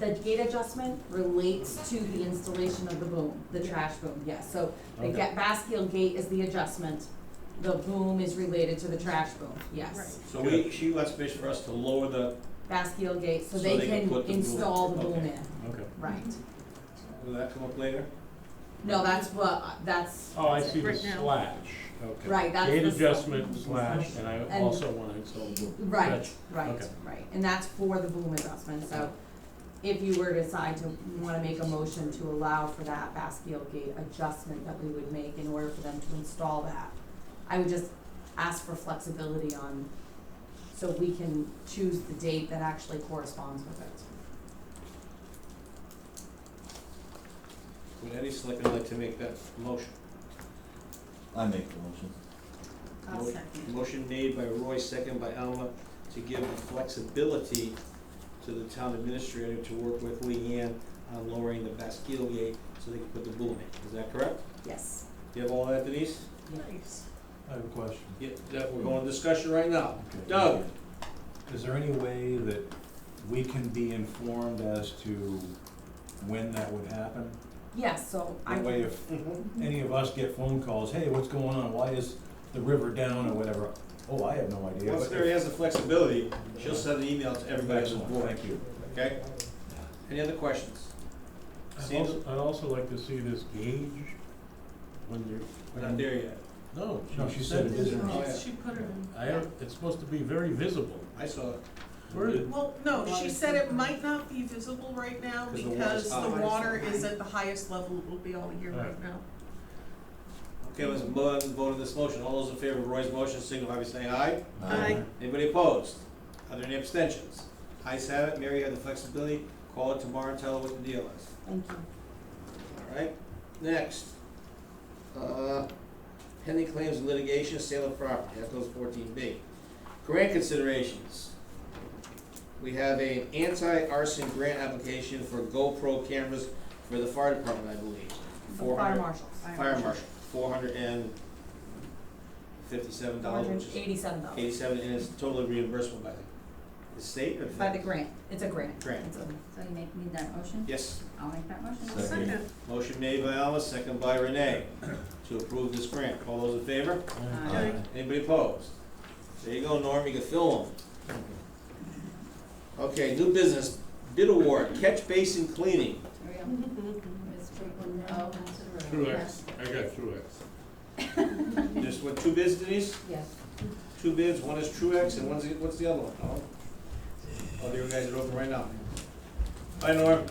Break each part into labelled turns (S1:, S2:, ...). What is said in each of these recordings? S1: The gate adjustment relates to the installation of the boom, the trash boom, yes. So the
S2: Okay.
S1: ga- Baskiel gate is the adjustment. The boom is related to the trash boom, yes.
S2: So we, she left space for us to lower the,
S1: Baskiel gate, so
S2: So
S1: they
S2: they can
S1: can
S2: put the boom-
S1: install the boom
S2: okay.
S1: in,
S2: okay,
S1: right.
S2: will that come up later?
S1: No, that's what, that's,
S3: Oh, I see the
S4: Right now.
S3: slash.
S2: Okay.
S1: right, that's the.
S3: Gate
S1: s-
S3: adjustment slash, and I
S1: And-
S3: also want to install the boom.
S1: Right,
S3: Gotcha.
S1: right,
S3: Okay.
S1: right. And that's for the boom adjustment, so if you were to decide to wanna make a motion to allow for that Baskiel gate adjustment that we would make in order for them to install that, I would just ask for flexibility on, so we can choose the date that actually corresponds with it.
S2: Would any selectman like to make that motion?
S5: I make the motion.
S4: I'll
S2: Mo-
S4: second.
S2: Motion made by Roy, second by Alma, to give the flexibility to the town administrator to work with Leanne on lowering the Baskeel gate so they can put the boom in, is that correct?
S1: Yes.
S2: Do you have all that Denise?
S4: Nice.
S6: I have a question.
S2: Yeah, that, we're going to discussion right now.
S6: Okay.
S2: Doug?
S6: Is there any way that we can be informed as to when that would happen?
S1: Yes, so I.
S6: That way, if any of us get phone calls, hey, what's going on, why is the river down or whatever, oh, I have no idea.
S2: Once
S6: but
S2: Mary has the flexibility, she'll send an email to everybody on the
S6: Excellent,
S2: board,
S6: thank you.
S2: okay? Any other questions?
S3: I'd
S2: Seems-
S3: also, I'd also like to see this gauge when you're.
S2: We're not there yet.
S3: No,
S6: No,
S3: she said it isn't.
S2: Oh, yeah.
S4: She put it in.
S3: I, don't- it's supposed to be very visible.
S2: I saw it.
S3: Where is,
S4: Well, no, she said it might not be visible right now
S2: 'Cause the
S4: because
S2: water's
S4: the
S2: high.
S4: water is at the highest level it will be all year right now.
S2: Okay, let's vote, vote on this motion. All those in favor of Roy's motion, signify by saying aye.
S4: Aye.
S2: Anybody opposed? Are there any abstentions? Ayes have it. Mary had the flexibility. Call it tomorrow and tell her what the deal is.
S1: Thank you.
S2: All right, next. Uh, Pending claims and litigation, sale of property, that goes fourteen B. Grant considerations. We have an anti-arson grant application for GoPro cameras for the fire department, I believe.
S1: The
S2: Four
S1: Fire
S2: hundred,
S1: marshals,
S2: fire marshal, four hundred and fifty-seven
S1: four
S2: dollars,
S1: hundred
S2: which
S1: and
S2: is
S1: eighty-seven dollars
S2: eighty-seven, and it's totally reimbursable by the, the state or the?
S1: by the grant, it's a grant.
S2: Grant.
S1: It's a-
S7: So you make, need that motion?
S2: Yes.
S7: I'll make that motion.
S5: Second.
S2: Motion made by Alma, second by Renee, to approve this grant. All those in favor?
S1: uh,
S7: Aye.
S2: Anybody opposed? There you go, Norm, you can fill them. Okay, new business, bid award, catch basin cleaning.
S7: Here we go. Ms. Franklin, oh,
S3: Truex, I got Truex.
S2: There's what, two bids, Denise?
S7: yes.
S2: Two bids, one is Truex and one's, the- what's the other one? Oh, Oh, the other guys are open right now. Hi, Norm.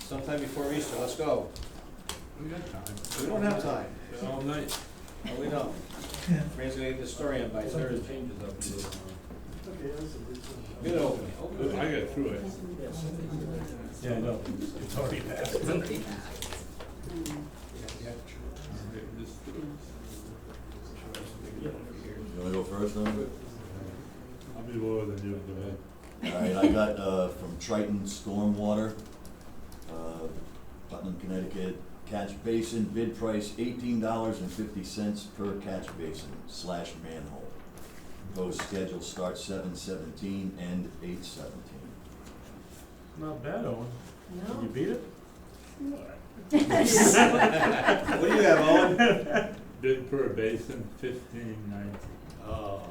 S2: Sometime before Easter, let's go.
S3: We got time.
S2: We don't have time.
S3: It's all night.
S2: No, we don't. Fran's gonna get the story in by Thursday.
S3: Changes up a little.
S2: Bid opening, open.
S3: I got Truex.
S6: Yeah, no, it's already passed.
S5: You wanna go first then?
S3: I'll be lower than you, go ahead.
S5: Alright, I got, uh, from Triton Stormwater, uh, Putnam, Connecticut, catch basin, bid price eighteen dollars and fifty cents per catch basin slash manhole. Proposed schedule starts seven seventeen, end eight seventeen.
S3: Not bad, Owen. You beat it?
S2: What do you have, Owen?
S8: Bid per basin fifteen ninety.
S2: Oh,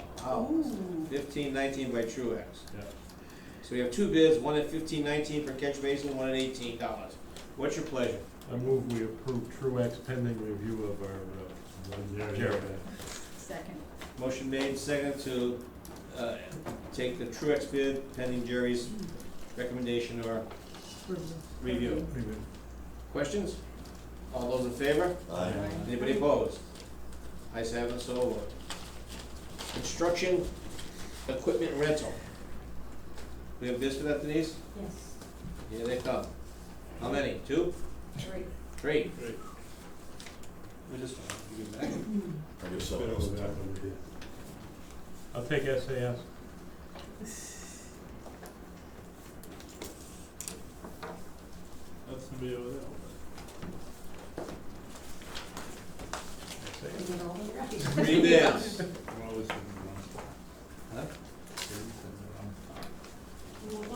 S4: Ooh,
S2: Fifteen nineteen by Truax.
S8: Yeah.
S2: So we have two bids, one at fifteen nineteen per catch basin, one at eighteen dollars. What's your pleasure?
S3: I move we approve Truax pending review of our, uh, one zero.
S2: Sure.
S7: Second.
S2: Motion made, second to, uh, take the Truax bid pending Jerry's recommendation or review. Questions? All those in favor?
S5: Aye.
S2: Anybody opposed? Ayes have it, so ordered. Construction equipment rental. We have bids for that, Denise?
S7: Yes.
S2: Here they come. How many? Two?
S7: Three.
S2: Three?
S3: Three.
S2: We just, you give back.
S5: I guess so.
S3: I'll take SAS. That's the over
S2: Three bids.